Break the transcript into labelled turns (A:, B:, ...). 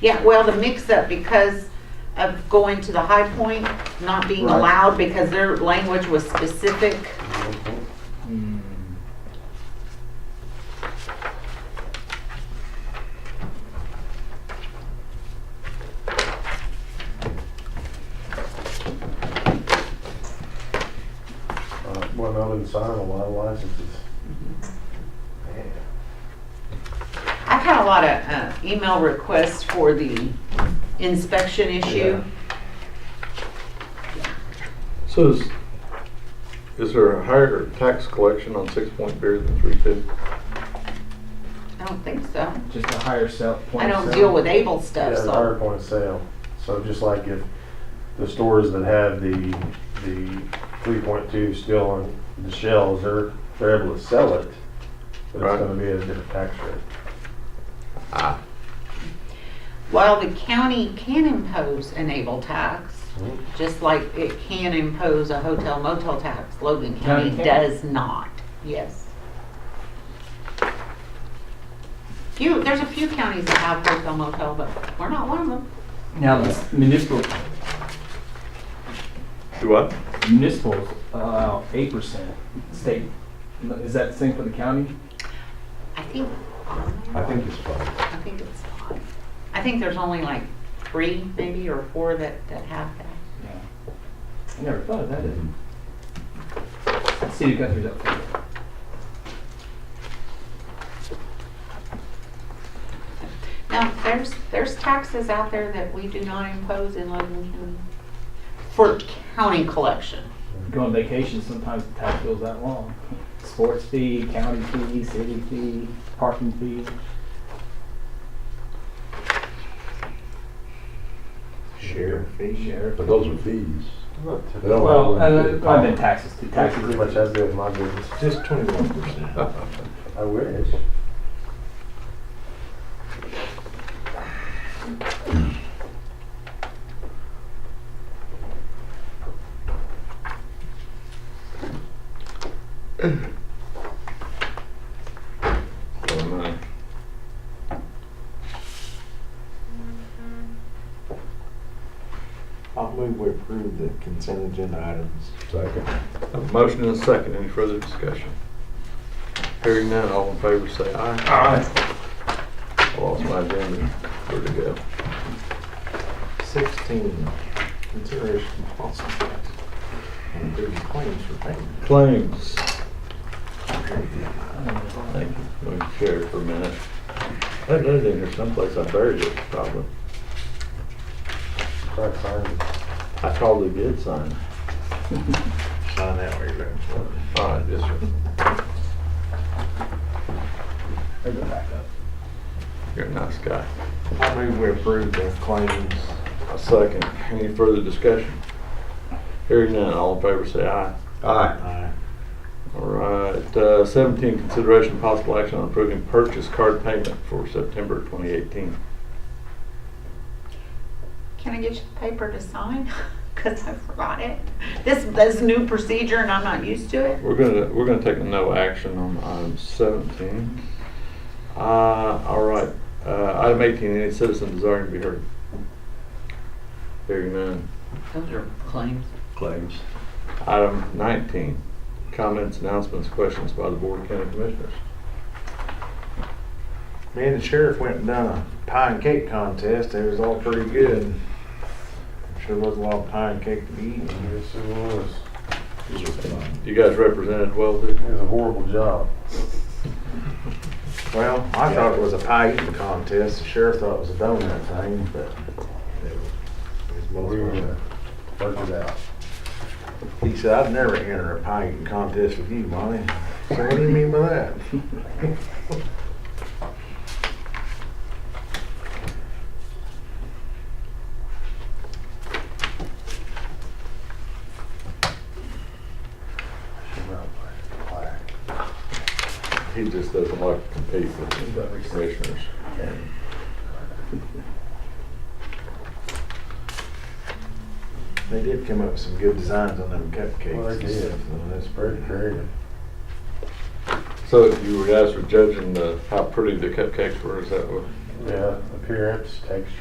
A: Yeah, well, the mix-up because of going to the High Point, not being
B: Right.
A: allowed because their language was specific.
C: Uh,
B: Hmm.
C: Uh, Went out and signed a lot of licenses. Man.
A: I've had a lot of uh, email requests for the inspection issue.
D: So is, is there a higher tax collection on six point beer than three fifty?
A: I don't think so.
B: Just a higher sell, point
A: I
B: of
A: don't
B: sale.
A: deal with able stuff,
C: Yeah, the higher
A: so.
C: point of sale. So just like if the stores that have the, the three point two still on the shelves, they're, they're able to sell it. But
D: Right.
C: it's gonna be at a different tax rate.
A: While the county can impose an able tax, just like it can impose a hotel motel tax, Logan
B: County
A: County
B: can?
A: does not, yes. Few, there's a few counties that have hotel motel, but we're not one of them.
B: Now, the municipal,
D: Do what?
B: municipals allow eight percent state. Is that the same for the county?
A: I think,
C: I
A: I
C: think it's fine.
A: think it's five. I think there's only like three maybe or four that, that have that.
B: Yeah. I never thought of that. either. City of Guthrie's up for it.
A: Now, there's, there's taxes out there that we do not impose in Logan County for county collection.
B: Go on vacation, sometimes the tax bill's that long. Sports fee, county fee, city fee, parking fee.
E: Share.
B: Fee share.
E: But those are fees. They
C: Oh,
E: don't
B: Well,
E: have
B: uh,
E: one.
B: I've been taxes, too.
C: Tax
B: taxes.
C: pretty much has to do with my business.
E: Just twenty-one percent.
C: I wish.
E: I'll move we approve the consent agenda items. Second.
D: A motion and a second, any further discussion? Hearing none, all in favor say aye. Aye. I lost my agenda, where'd it go?
E: Sixteen, consideration of possible action on approving claims for payment.
D: Claims.
B: I don't know.
D: Thank you, let me share it for a minute. I had it in here someplace, I buried it probably.
C: Try to sign it.
D: I probably did sign it.
E: Sign that way, right?
D: All right, yes, sir.
B: They go back up.
D: You're a nice guy.
E: I'll move we approve the claims.
D: A second, any further discussion? Hearing none, all in favor say aye.
E: Aye.
D: All right, uh, seventeen, consideration of possible action on approving purchase card payment for September twenty eighteen.
A: Can I get you the paper to sign? Because I forgot it. This, this new procedure and I'm not used to it.
D: We're gonna, we're gonna take no action on item seventeen. Uh, all right, uh, item eighteen, any citizen desiring to be heard? Hearing none.
A: Those are claims.
D: Claims. Item nineteen, comments, announcements, questions by the Board of County Commissioners.
E: Me and the sheriff went and done a pie and cake contest. It was all pretty good. Sure was a lot of pie and cake to be eaten.
C: Yes, it was.
D: You guys represented well, did
C: It was a horrible job.
E: Well, I thought it was a pie eating contest. The sheriff thought it was a donut thing, but it was
C: We were
E: both.
C: gonna work it out.
E: He said, I'd never enter a pie eating contest with you, Monty. So what do you mean by that?
C: Should not play. Play.
D: He just doesn't like to compete with the commissioners.
E: They did come up with some good designs on them
C: Well,
E: cupcakes
C: they
E: and
C: did.
E: stuff. though. That's
C: It's very creative.
D: So you were guys were judging the, how pretty the cupcakes were, is that what?
C: Yeah, appearance, texture.